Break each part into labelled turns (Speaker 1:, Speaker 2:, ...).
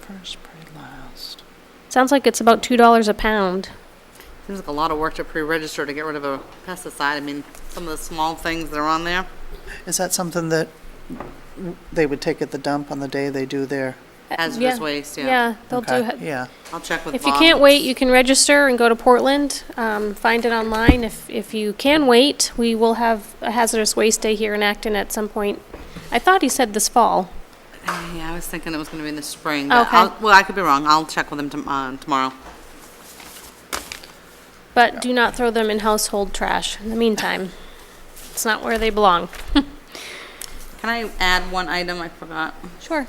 Speaker 1: First, pray last.
Speaker 2: Sounds like it's about two dollars a pound.
Speaker 3: Seems like a lot of work to pre-register to get rid of a pesticide. I mean, some of the small things that are on there.
Speaker 1: Is that something that they would take at the dump on the day they do their?
Speaker 3: Hazardous waste, yeah.
Speaker 2: Uh, Yeah, they'll
Speaker 1: Okay,
Speaker 2: do. ha-
Speaker 1: Yeah,
Speaker 3: I'll check with
Speaker 2: If you
Speaker 3: Bob.
Speaker 2: can't wait, you can register and go to Portland. Um, find it online. If if you can wait, we will have a hazardous waste day here in Acton at some point. I thought he said this fall.
Speaker 3: Yeah, I was thinking it was gonna be in the spring, but
Speaker 2: Okay.
Speaker 3: I'll, well, I could be wrong. I'll check with him tom- uh, tomorrow.
Speaker 2: But do not throw them in household trash in the meantime. It's not where they belong.
Speaker 3: Can I add one item? I forgot.
Speaker 2: Sure.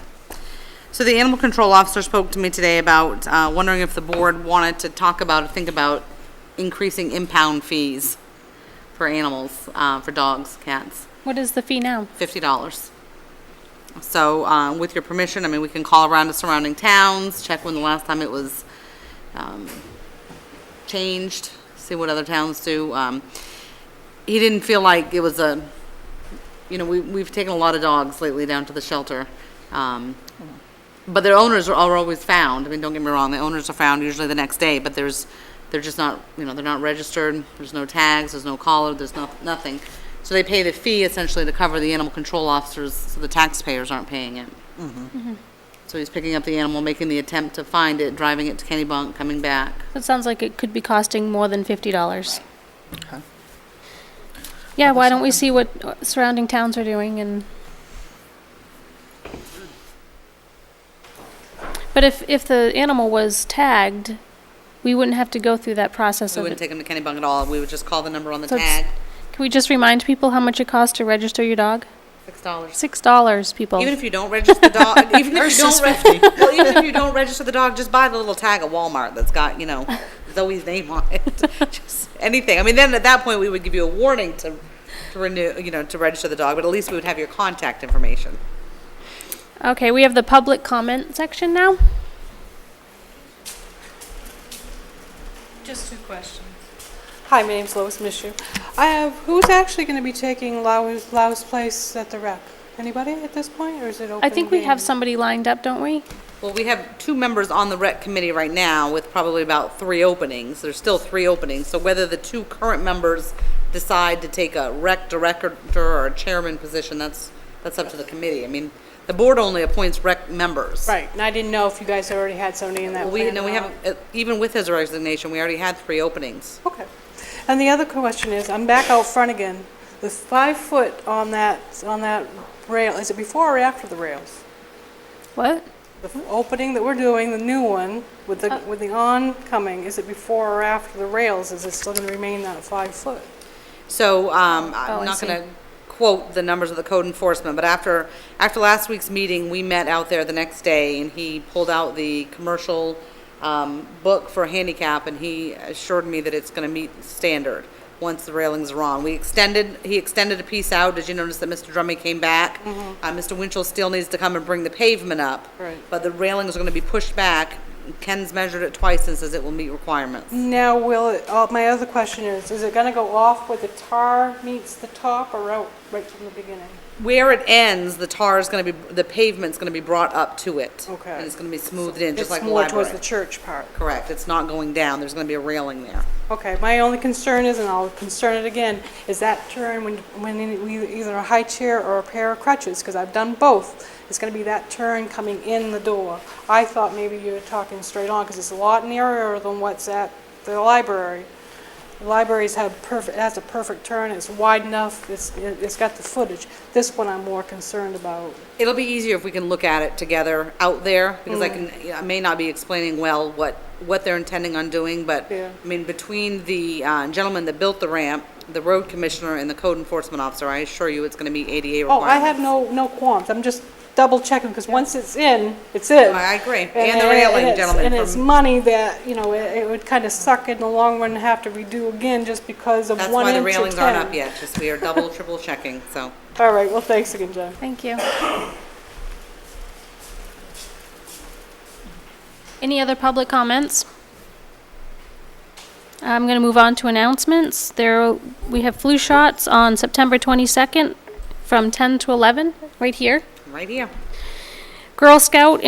Speaker 3: So the animal control officer spoke to me today about, uh, wondering if the board wanted to talk about, or think about increasing impound fees for animals, uh, for dogs, cats.
Speaker 2: What is the fee now?
Speaker 3: fifty dollars. So, uh, with your permission, I mean, we can call around to surrounding towns, check when the last time it was, um, changed, see what other towns do. Um, he didn't feel like it was a, you know, we, we've taken a lot of dogs lately down to the shelter. Um, but their owners are, are always found. I mean, don't get me wrong, the owners are found usually the next day, but there's, they're just not, you know, they're not registered. There's no tags, there's no collar, there's no, nothing. So they pay the fee essentially to cover the animal control officers, so the taxpayers aren't paying it. So he's picking up the animal, making the attempt to find it, driving it to Kennybunk, coming back.
Speaker 2: It sounds like it could be costing more than fifty dollars.
Speaker 1: okay.
Speaker 2: Yeah, why don't we see what uh, surrounding towns are doing and. But if, if the animal was tagged, we wouldn't have to go through that process
Speaker 3: We
Speaker 2: of
Speaker 3: wouldn't
Speaker 2: it.
Speaker 3: take him to Kennybunk at all. We would just call the number on the
Speaker 2: So it's-
Speaker 3: tag,
Speaker 2: Can we just remind people how much it costs to register your dog?
Speaker 3: six dollars.
Speaker 2: Six dollars, people.
Speaker 3: Even if you don't register the dog, even if you
Speaker 1: Versus
Speaker 3: don't, re- well, even if you don't register the dog, just buy the little tag at Walmart that's got, you know, Zoe's name on it. Just anything. I mean, then at that point, we would give you a warning to, to renew, you know, to register the dog, but at least we would have your contact information.
Speaker 2: Okay, we have the public comment section now.
Speaker 4: Just two questions. Hi, my name's Lois Mishu. I have, who's actually going to be taking Lau's, Lau's place at the rec? Anybody at this point, or is it open?
Speaker 2: I think we have
Speaker 4: game?
Speaker 2: somebody lined up, don't we?
Speaker 3: Well, we have two members on the rec committee right now with probably about three openings. There's still three openings. So whether the two current members decide to take a rec director or a chairman position, that's, that's up to the committee. I mean, the board only appoints rec members.
Speaker 4: Right, and I didn't know if you guys already had somebody in that
Speaker 3: Well,
Speaker 4: plan.
Speaker 3: We, no,
Speaker 4: or
Speaker 3: we
Speaker 4: not.
Speaker 3: haven't, uh, even with his resignation, we already had three openings.
Speaker 4: Okay. And the other question is, I'm back out front again. The five foot on that, on that rail, is it before or after the rails?
Speaker 2: What?
Speaker 4: The
Speaker 2: Hmm?
Speaker 4: f- opening that we're doing, the new one, with
Speaker 2: Uh.
Speaker 4: the, with the oncoming, is it before or after the rails? Is it still going to remain that five foot?
Speaker 3: So, um,
Speaker 2: Oh, I
Speaker 3: I'm not
Speaker 2: see.
Speaker 3: gonna quote the numbers of the code enforcement, but after, after last week's meeting, we met out there the next day, and he pulled out the commercial, um, book for handicap, and he assured me that it's gonna meet standard once the railings are on. We extended, he extended a piece out. Did you notice that Mr. Drummy came back?
Speaker 2: Mm-hmm.
Speaker 3: Uh, Mr. Winchell still needs to come and bring the pavement up.
Speaker 4: Right.
Speaker 3: But the railings are gonna be pushed back. Ken's measured it twice and says it will meet requirements.
Speaker 4: Now, will it, uh, my other question is, is it gonna go off where the tar meets the top or out right from the beginning?
Speaker 3: Where it ends, the tar is gonna be, the pavement's gonna be brought up to it.
Speaker 4: Okay.
Speaker 3: And it's gonna be smoothed in, just like the
Speaker 4: It's more towards the
Speaker 3: library.
Speaker 4: church part.
Speaker 3: Correct, it's not going down, there's gonna be a railing there.
Speaker 4: Okay, my only concern is, and I'll concern it again, is that turn when, when we either a high chair or a pair of crutches, because I've done both, it's gonna be that turn coming in the door. I thought maybe you were talking straight on, because it's a lot narrower than what's at the library. The Libraries have perfect, has a perfect turn, it's wide enough, it's, it's got the footage. This one I'm more concerned about.
Speaker 3: It'll be easier if we can look at it together out there, because I
Speaker 4: Mm.
Speaker 3: can, I may not be explaining well what, what they're intending on doing, but,
Speaker 4: Yeah.
Speaker 3: I mean, between the uh, gentleman that built the ramp, the road commissioner, and the code enforcement officer, I assure you it's gonna meet ADA
Speaker 4: Oh,
Speaker 3: requirements.
Speaker 4: I have no, no qualms, I'm just double checking, because once it's in, it's in.
Speaker 3: I agree. And the
Speaker 4: it-
Speaker 3: railing,
Speaker 4: it's-
Speaker 3: gentlemen,
Speaker 4: And it's
Speaker 3: from-
Speaker 4: money that, you know, it it would kind of suck in the long run to have to redo again just because of
Speaker 3: That's
Speaker 4: one
Speaker 3: why
Speaker 4: inch
Speaker 3: the
Speaker 4: or ten.
Speaker 3: railings aren't up yet, just we are double, triple checking, so.
Speaker 4: All right, well, thanks again, Jen.
Speaker 2: Thank you. Any other public comments? I'm going to move on to announcements. There, we have flu shots on September 22nd from 10 to 11, right here.
Speaker 3: Right here.
Speaker 2: Girl Scout